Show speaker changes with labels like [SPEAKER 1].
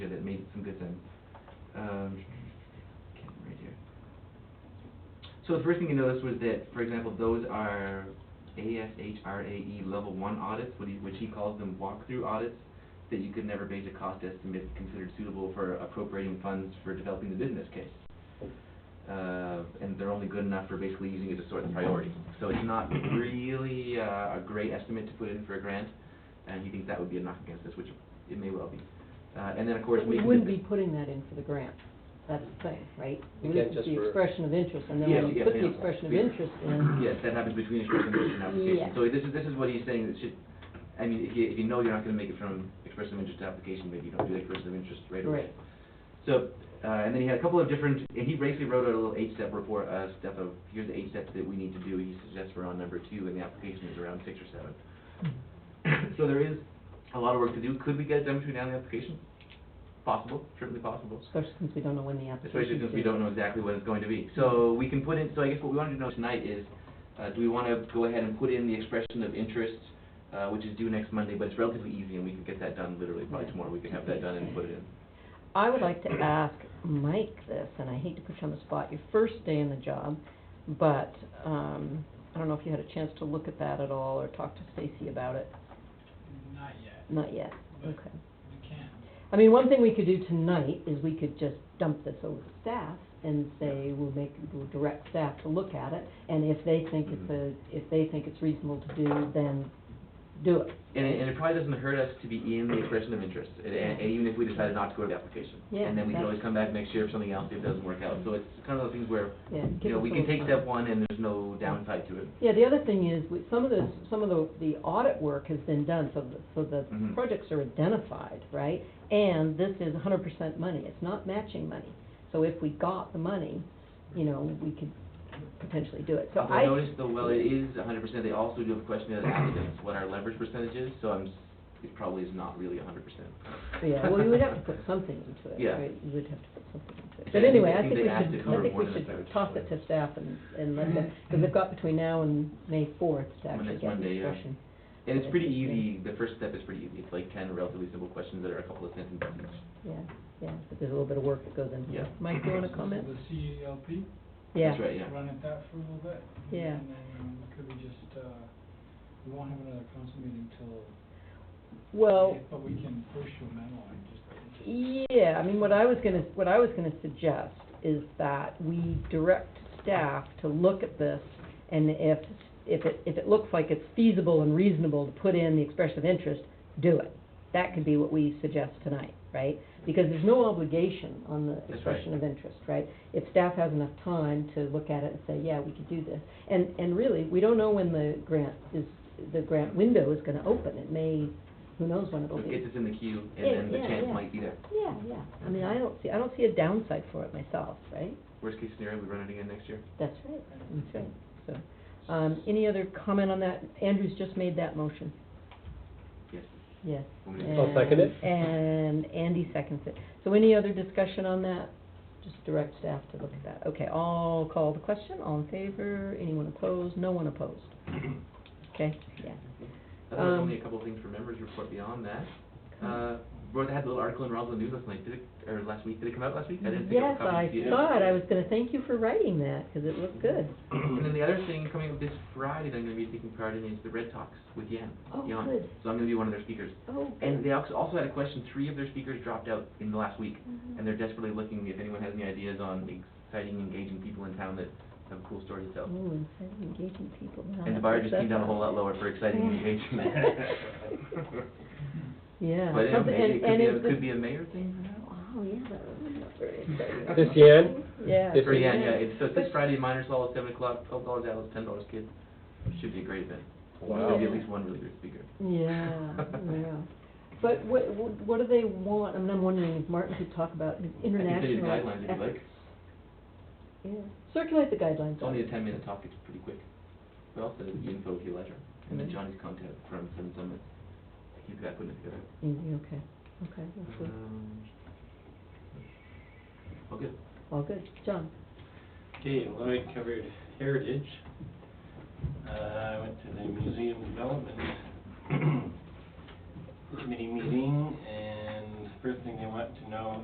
[SPEAKER 1] some good things. Um, can't read here. So the first thing you noticed was that, for example, those are ASHRAE E level one audits, what he, which he calls them walkthrough audits, that you could never base a cost estimate considered suitable for appropriating funds for developing the business case uh, and they're only good enough for basically using it to sort the priority. So it's not really uh, a great estimate to put in for a grant, and he thinks that would be a knock against us, which it may well be. Uh, and then, of course,
[SPEAKER 2] But
[SPEAKER 1] we.
[SPEAKER 2] we
[SPEAKER 1] can
[SPEAKER 2] wouldn't
[SPEAKER 1] do-
[SPEAKER 2] be putting that in for the grant, that's the thing, right?
[SPEAKER 3] You
[SPEAKER 2] This
[SPEAKER 3] can't
[SPEAKER 2] is
[SPEAKER 3] just
[SPEAKER 2] the
[SPEAKER 3] for-
[SPEAKER 2] expression of interest, and then
[SPEAKER 1] Yeah,
[SPEAKER 2] when you
[SPEAKER 1] yeah,
[SPEAKER 2] put the
[SPEAKER 1] yeah.
[SPEAKER 2] expression of
[SPEAKER 1] We-
[SPEAKER 2] interest in,
[SPEAKER 1] Yes, that happens between expression of interest and application.
[SPEAKER 2] Yeah.
[SPEAKER 1] So this is, this is what he's saying, that should, I mean, if you, if you know you're not gonna make it from expression of interest to application, maybe you don't do the expression of interest right away.
[SPEAKER 2] Right.
[SPEAKER 1] So, uh, and then he had a couple of different, and he basically wrote a little eight-step report, uh, step of, here's the eight steps that we need to do, he suggests we're on number two, and the application is around six or seven. So there is a lot of work to do, could we get it done between now and the application? Possible, certainly possible.
[SPEAKER 2] especially since we don't know when the application is
[SPEAKER 1] Especially since we don't know exactly what it's going to be. So we can put in, so I guess what we want to know tonight is, uh, do we want to go ahead and put in the expression of interest, uh, which is due next Monday, but it's relatively easy and we can get that done literally by
[SPEAKER 2] Yeah.
[SPEAKER 1] tomorrow. We can have that done and put it in.
[SPEAKER 2] I would like to ask Mike this, and I hate to put you on the spot, your first day in the job, but, um, I don't know if you had a chance to look at that at all, or talk to Stacy about it,
[SPEAKER 4] Not yet,
[SPEAKER 2] not yet,
[SPEAKER 4] but
[SPEAKER 2] okay.
[SPEAKER 4] we can.
[SPEAKER 2] I mean, one thing we could do tonight is we could just dump this over to staff and say, we'll make, we'll direct staff to look at it, and if they think it's a,
[SPEAKER 1] Mm-hmm.
[SPEAKER 2] if they think it's reasonable to do, then do it.
[SPEAKER 1] And it, and it probably doesn't hurt us to be in the expression of interest, and, and and even if we decided not to go to the application.
[SPEAKER 2] Yeah,
[SPEAKER 1] And then we can always
[SPEAKER 2] that's-
[SPEAKER 1] come back next year if something else, if it doesn't work out. So it's kind of those things where,
[SPEAKER 2] Yeah, give
[SPEAKER 1] you know,
[SPEAKER 2] us
[SPEAKER 1] we
[SPEAKER 2] a
[SPEAKER 1] can
[SPEAKER 2] little
[SPEAKER 1] take
[SPEAKER 2] time.
[SPEAKER 1] step one and there's no downside to it.
[SPEAKER 2] Yeah, the other thing is, we- some of the, some of the, the audit work has been done, so, the- so the
[SPEAKER 1] Mhm.
[SPEAKER 2] projects are identified, right? And this is hundred percent money, it's not matching money. So if we got the money, you know, we could potentially do it. So
[SPEAKER 1] Although
[SPEAKER 2] I.
[SPEAKER 1] notice though, well, it is a hundred percent, they also do have a question as applicants, what our leverage percentage is, so I'm, s- it probably is not really a hundred percent.
[SPEAKER 2] Yeah, well, you would have to put something into it,
[SPEAKER 1] Yeah.
[SPEAKER 2] right? You would have to put something into
[SPEAKER 1] Yeah,
[SPEAKER 2] it.
[SPEAKER 1] I
[SPEAKER 2] But
[SPEAKER 1] think-
[SPEAKER 2] anyway,
[SPEAKER 1] I
[SPEAKER 2] I
[SPEAKER 1] think
[SPEAKER 2] think we
[SPEAKER 1] they asked to
[SPEAKER 2] should, I
[SPEAKER 1] cover
[SPEAKER 2] think
[SPEAKER 1] more
[SPEAKER 2] we
[SPEAKER 1] than a third,
[SPEAKER 2] should toss it
[SPEAKER 1] so-
[SPEAKER 2] to staff and, and let them, because they've got between now and May fourth to
[SPEAKER 1] When
[SPEAKER 2] actually
[SPEAKER 1] it's
[SPEAKER 2] get the
[SPEAKER 1] Monday, yeah.
[SPEAKER 2] expression.
[SPEAKER 1] And it's pretty easy, the first step is pretty easy, it's like ten relatively simple questions that are a couple of sentences each.
[SPEAKER 2] Yeah, yeah, but there's a little bit of work that goes into
[SPEAKER 1] Yeah.
[SPEAKER 2] it. Mike, you wanna comment?
[SPEAKER 4] The E CELP,
[SPEAKER 2] Yeah.
[SPEAKER 1] That's right, yeah.
[SPEAKER 4] run at that for a little bit.
[SPEAKER 2] Yeah.
[SPEAKER 4] And then um, could we just, uh, we won't have another council meeting till.
[SPEAKER 2] Well, e-
[SPEAKER 4] May, But we can push your memo and just. just-
[SPEAKER 2] yeah, I mean, what I was gonna, what I was gonna suggest is that we direct staff to look at this, and if, if it, if it looks like it's feasible and reasonable to put in the expression of interest, do it. That could be what we suggest tonight, right? Because there's no obligation on the
[SPEAKER 1] right.
[SPEAKER 2] expression of interest, right? If staff has enough time to look at it and say, yeah, we could do this. And, and really, we don't know when the grant is, the grant window is gonna open. It may, who knows when
[SPEAKER 1] So
[SPEAKER 2] it'll
[SPEAKER 1] it
[SPEAKER 2] be.
[SPEAKER 1] gets us in the queue,
[SPEAKER 2] Yeah,
[SPEAKER 1] and then the
[SPEAKER 2] yeah,
[SPEAKER 1] chance
[SPEAKER 2] yeah.
[SPEAKER 1] might be there.
[SPEAKER 2] Yeah, yeah, I mean, I don't see, I don't see a downside for it myself, right?
[SPEAKER 1] Worst case scenario, we run it again next year.
[SPEAKER 2] That's right, that's right, so, um, any other comment on that? Andrew's just made that motion,
[SPEAKER 1] Yes.
[SPEAKER 2] yes.
[SPEAKER 1] I'll
[SPEAKER 2] And-
[SPEAKER 3] second it.
[SPEAKER 2] And Andy seconds it, so any other discussion on that? Just direct staff to look at that, okay, I'll call the question, all in favor, anyone opposed, no one opposed? Okay, yeah,
[SPEAKER 1] Otherwise,
[SPEAKER 2] Um,
[SPEAKER 1] only a couple of things for members report beyond that. Uh, wrote, I had a little article in Roswell News last night, did it, or last week, did it come out last week? I didn't pick up
[SPEAKER 2] yes,
[SPEAKER 1] a copy.
[SPEAKER 2] I
[SPEAKER 1] Did you?
[SPEAKER 2] saw it, I was gonna thank you for writing that, 'cause it looked good.
[SPEAKER 1] And then the other thing coming up this Friday that I'm gonna be taking part in is the Red Talks with Yan.
[SPEAKER 2] Oh,
[SPEAKER 1] Yan.
[SPEAKER 2] good.
[SPEAKER 1] So I'm gonna be one of their speakers.
[SPEAKER 2] Oh,
[SPEAKER 1] And
[SPEAKER 2] good.
[SPEAKER 1] they also also had a question, three of their speakers dropped out in the last week,
[SPEAKER 2] Hmm.
[SPEAKER 1] and they're desperately looking if anyone has any ideas on exciting, engaging people in town that have a cool story to tell.
[SPEAKER 2] Ooh, instead of Oh, engaging people. wow,
[SPEAKER 1] And the bar just
[SPEAKER 2] that's-
[SPEAKER 1] came down a whole lot lower for exciting
[SPEAKER 2] Yeah.
[SPEAKER 1] engagement.
[SPEAKER 2] Yeah.
[SPEAKER 1] But yeah,
[SPEAKER 2] something-
[SPEAKER 1] maybe it
[SPEAKER 2] and-
[SPEAKER 1] could be,
[SPEAKER 2] and
[SPEAKER 1] a-
[SPEAKER 2] was-
[SPEAKER 1] could be a mayor thing for now?
[SPEAKER 2] Oh, yeah, that would be very exciting.
[SPEAKER 3] This Yan?
[SPEAKER 2] Yeah.
[SPEAKER 3] This
[SPEAKER 1] For
[SPEAKER 3] is-
[SPEAKER 1] Yan, yeah, it's, so it's this
[SPEAKER 2] But-
[SPEAKER 1] Friday, miners hall at seven o'clock, twelve dollars adults, ten dollars kids. Should be a great event.
[SPEAKER 3] Wow.
[SPEAKER 1] There'll be at least one really good speaker.
[SPEAKER 2] Yeah, yeah. But what, what what do they want, I mean, I'm wondering if Martin could talk about his
[SPEAKER 1] I can
[SPEAKER 2] international.
[SPEAKER 1] send you the guidelines if you
[SPEAKER 2] efforts.
[SPEAKER 1] like.
[SPEAKER 2] Yeah, circulate the guidelines.
[SPEAKER 1] It's only a ten minute talk, it's pretty quick. But also the info if you like, and then
[SPEAKER 2] Mhm.
[SPEAKER 1] Johnny's contact from Sun Summit. He's got putting it together.
[SPEAKER 2] Easy, okay, okay, that's good,
[SPEAKER 1] Um, Okay,
[SPEAKER 2] all good. John?
[SPEAKER 5] Okay, well, I covered heritage. Uh, I went to the museum development committee meeting, and first thing they want to know